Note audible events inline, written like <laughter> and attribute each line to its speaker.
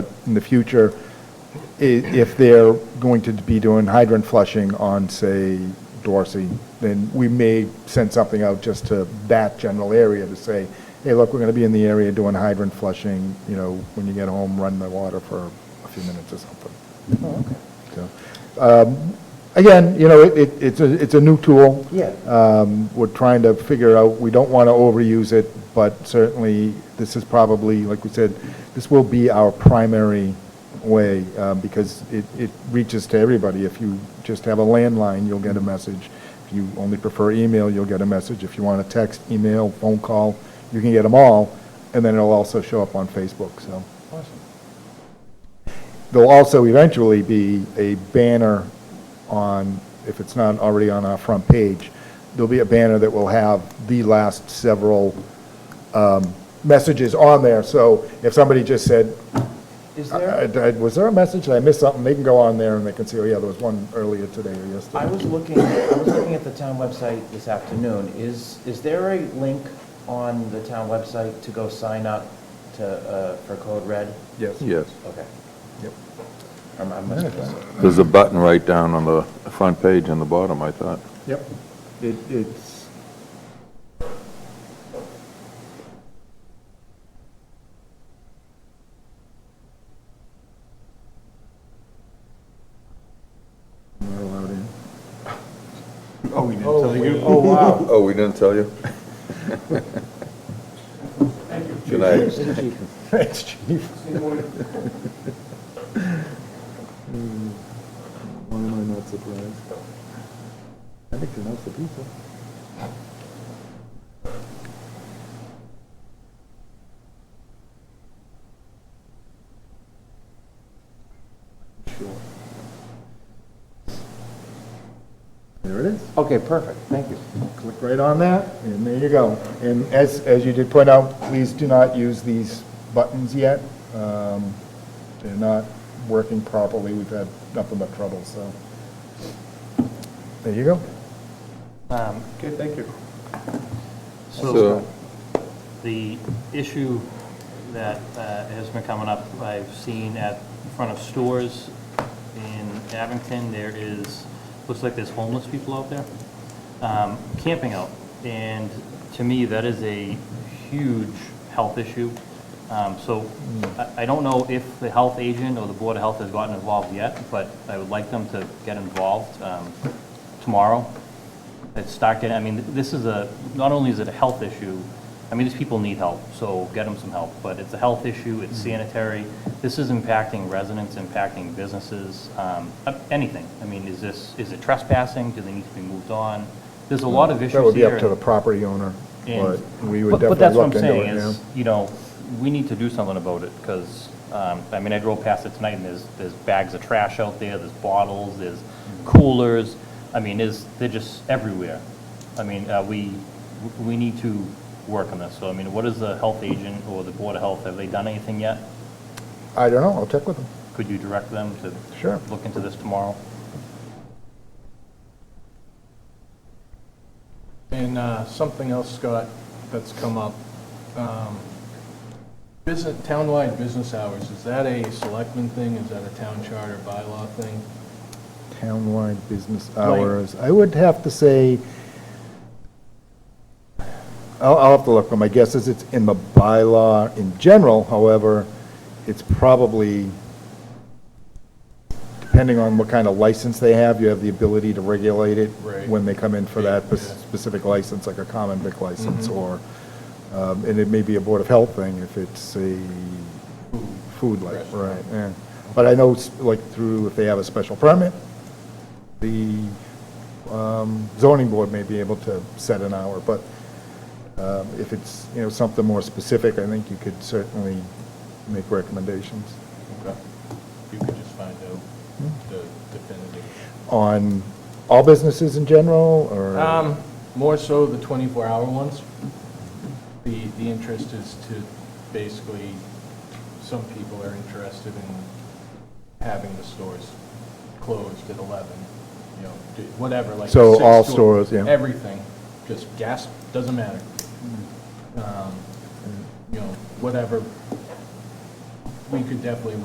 Speaker 1: in the future, i- if they're going to be doing hydrant flushing on, say, Dorsey, then we may send something out just to that general area to say, hey, look, we're going to be in the area doing hydrant flushing, you know, when you get home, run the water for a few minutes or something. So, um, Again, you know, it- it, it's a, it's a new tool.
Speaker 2: Yeah.
Speaker 1: Um, We're trying to figure out, we don't want to overuse it, but certainly, this is probably, like we said, this will be our primary way, uh, because it, it reaches to everybody. If you just have a landline, you'll get a message. If you only prefer email, you'll get a message. If you want to text, email, phone call, you can get them all, and then it'll also show up on Facebook, so. There'll also eventually be a banner on, if it's not already on our front page, there'll be a banner that will have the last several um, messages on there. So if somebody just said,
Speaker 2: Is
Speaker 1: I-
Speaker 2: there,
Speaker 1: I- I- was there a message, did I miss something? They can go on there and they can see, oh yeah, there was one earlier today or
Speaker 2: I
Speaker 1: yesterday.
Speaker 2: was looking, I was looking at the town website this afternoon. Is, is there a link on the town website to go sign up to, uh, for Code Red?
Speaker 1: Yes.
Speaker 3: Yes.
Speaker 2: Okay.
Speaker 1: Yep.
Speaker 2: I'm, I'm,
Speaker 3: There's a button right down on the front page on the bottom, I thought.
Speaker 1: Yep. It, it's, not allowed in. Oh, we didn't tell you. Oh, wow.
Speaker 3: Oh, we didn't tell you? <laughs> Good night.
Speaker 1: <laughs> Thanks, chief.
Speaker 4: Why am I not surprised? I think they're not the pizza.
Speaker 1: There it is.
Speaker 4: Okay, perfect, thank you.
Speaker 1: Click right on that, and there you go. And as, as you did point out, please do not use these buttons yet. Um, They're not working properly, we've had nothing but trouble, so. There you go.
Speaker 5: Um,
Speaker 4: Okay, thank you.
Speaker 3: So,
Speaker 5: So, the issue that uh, has been coming up, I've seen at, in front of stores in Abington, there is, looks like there's homeless people out there um, camping out. And to me, that is a huge health issue. Um, So I I don't know if the health agent or the Board of Health has gotten involved yet, but I would like them to get involved um, tomorrow it's start getting, I mean, this is a, not only is it a health issue, I mean, these people need help, so get them some help, but it's a health issue, it's
Speaker 1: Mm-hmm.
Speaker 5: sanitary, this is impacting residents, impacting businesses, um, uh, anything. I mean, is this, is it trespassing, do they need to be moved on? There's a lot of issues here.
Speaker 1: That would be up to the property owner, but
Speaker 5: And-
Speaker 1: we would definitely look
Speaker 5: but- But that's what I'm
Speaker 1: into it,
Speaker 5: saying
Speaker 1: yeah.
Speaker 5: is, you know, we need to do something about it, because, I mean, I drove past it tonight, and there's, there's bags of trash out there, there's bottles, there's
Speaker 1: Mm-hmm.
Speaker 5: coolers, I mean, is, they're just everywhere. I mean, uh, we, we need to work on this, so, I mean, what is the health agent or the Board of Health, have they done anything yet?
Speaker 1: I don't know, I'll check with them.
Speaker 5: Could you direct them to
Speaker 1: Sure.
Speaker 5: look into this tomorrow?
Speaker 6: And uh, something else, Scott, that's come up. Um, Business, townwide business hours, is that a selectman thing? Is that a town charter bylaw thing?
Speaker 1: Townwide business
Speaker 6: Right.
Speaker 1: hours, I would have to say, I'll, I'll have to look, but my guess is it's in the bylaw in general, however, it's probably, depending on what kind of license they have, you have the ability to regulate it
Speaker 6: Right.
Speaker 1: when they come in for that
Speaker 6: Yeah. Mm-hmm.
Speaker 1: specific license, like a common vic license, or, um, and it may be a Board of Health thing if it's a food like, right, yeah. But I know, s- like, through, if they have a special permit, the um, zoning board may be able to set an hour, but um, if it's, you know, something more specific, I think you could certainly make recommendations
Speaker 6: Okay. You could just find out the definitive.
Speaker 1: on all businesses in general, or,
Speaker 6: Um, More so the 24-hour ones. The, the interest is to basically, some people are interested in having the stores closed at 11, you know, do- whatever, like.
Speaker 1: So
Speaker 6: six
Speaker 1: all
Speaker 6: to-
Speaker 1: stores, yeah.
Speaker 6: Everything, just gas, doesn't matter.
Speaker 1: Mm.
Speaker 6: Um, You know, whatever. We could definitely